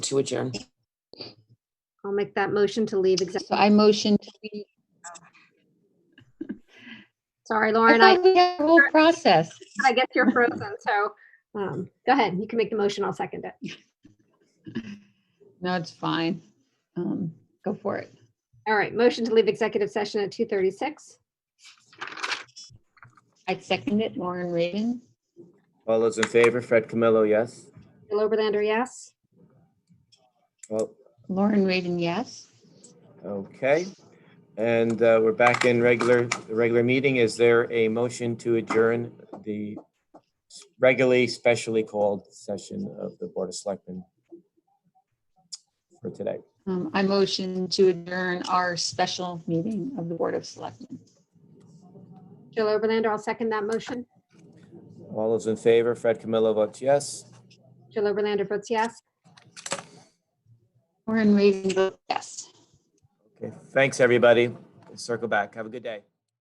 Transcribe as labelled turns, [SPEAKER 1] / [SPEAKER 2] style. [SPEAKER 1] to adjourn.
[SPEAKER 2] I'll make that motion to leave
[SPEAKER 3] So
[SPEAKER 2] executive.
[SPEAKER 3] I motion, to leave.
[SPEAKER 2] Sorry,
[SPEAKER 3] I
[SPEAKER 2] Lauren, I,
[SPEAKER 3] thought we had a whole process.
[SPEAKER 2] I guess you're frozen, so, um, go ahead, you can make the motion, I'll second it.
[SPEAKER 3] No, it's fine. Um, Go for it.
[SPEAKER 2] All right, motion to leave executive session at two thirty-six.
[SPEAKER 3] I second it, Lauren Raven.
[SPEAKER 4] All those in favor, Fred Camillo, yes?
[SPEAKER 2] Bill Oberlander, yes?
[SPEAKER 4] Well,
[SPEAKER 3] Lauren Raven, yes.
[SPEAKER 4] okay. And uh, we're back in regular, the regular meeting. Is there a motion to adjourn the regularly, specially called session of the Board of Selectmen for today?
[SPEAKER 3] Um, I motion to adjourn our special meeting of the Board of Selectmen.
[SPEAKER 2] Bill Oberlander, I'll second that motion.
[SPEAKER 4] All those in favor, Fred Camillo votes yes.
[SPEAKER 2] Bill Oberlander votes yes.
[SPEAKER 3] Lauren Raven, votes yes.
[SPEAKER 4] Okay, thanks, everybody. Circle back. Have a good day.